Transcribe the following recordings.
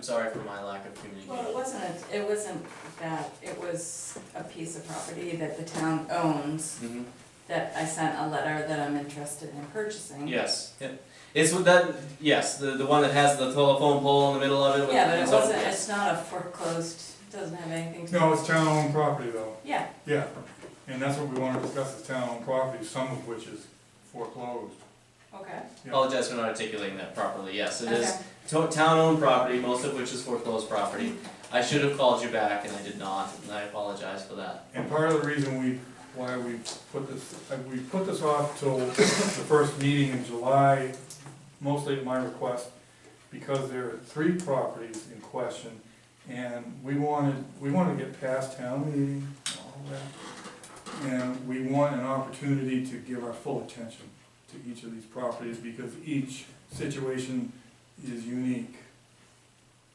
sorry for my lack of communication. Well, it wasn't, a- it wasn't that, it was a piece of property that the town owns, Mhm. that I sent a letter that I'm interested in purchasing. Yes, yeah. it's with that, yes, the, the one that has the telephone pole in the middle of it with. Yeah, but it it's all- wasn't, yes. it's not a foreclosed, doesn't have anything to. No, it's town-owned property though, Yeah, yeah, and that's what we wanna discuss, is town-owned property, some of which is foreclosed. okay, Apologize for not articulating that properly, yes, it is okay, to- town-owned property, most of which is foreclosed property. I should have called you back and I did not, and I apologize for that. And part of the reason we, why we put this, uh, we put this off till the first meeting in July, mostly at my request, because there are three properties in question, and we wanted, we wanted to get past town meeting, and all that. And we want an opportunity to give our full attention to each of these properties, because each situation is unique.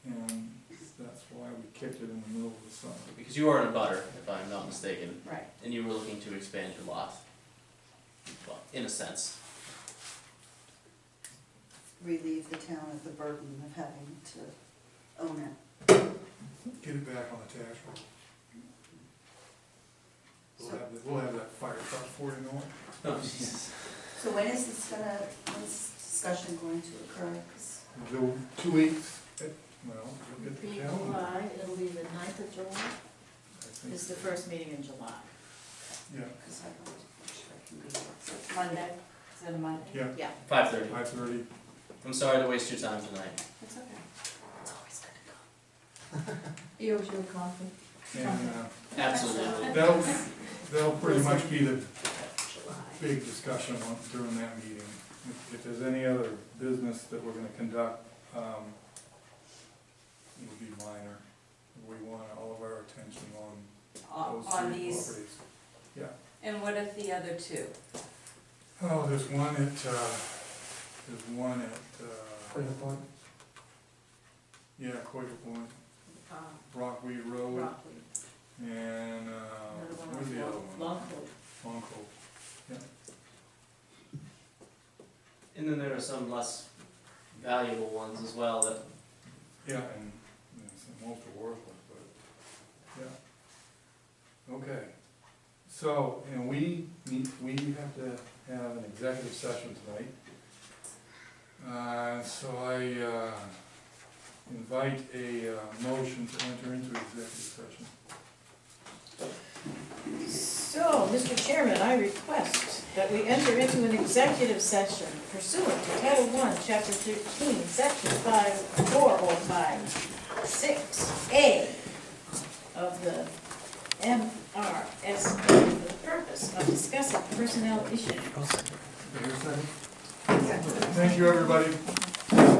And that's why we kicked it in the middle of the summer. Because you are in a butter, if I'm not mistaken, right. and you were looking to expand your lot. Well, in a sense, relieve the town of the burden of having to own it. Get it back on the tax roll. We'll So- have, the- we'll have that fire truck for you, Norm. oh Jesus, So when is this gonna, when is discussion going to occur? 'Cause Do two weeks. eh, Well, we'll get Be the calendar. July, it'll be the ninth of July, I think. is the first meeting in July. Yeah, 'cause I want to make sure I can be here. So it's Monday, is it a Monday? yeah, five thirty, five thirty. I'm sorry to waste your time tonight. It's okay. It's always gonna go. You owe you a coffee. And uh, Absolutely. that'll, that'll pretty much be the July. big discussion on- during that meeting. If- If there's any other business that we're gonna conduct, um, it would be minor. We want all of our attention on On, those Uh, on three these, properties. and what if the other two? Oh, there's one at, uh, there's one at, uh. Quaker Point? Yeah, Quaker Point, Uh, Rockweed Road, Rockwood. and, uh, Another one where's on the other Long- one? Longwood. Long Cove. And then there are some less valuable ones as well that Yeah, and, you know, some most are worthless, but, yeah. Okay, so, and we, need- we have to have an executive session tonight. Uh, so I, uh, invite a, uh, motion to enter into executive session. So, Mr. Chairman, I request that we enter into an executive session pursuant to Title One, Chapter thirteen, Section five, four oh five, six A of the MRS for the purpose of discussing personnel issues. Okay, here's a second. Thank you, everybody.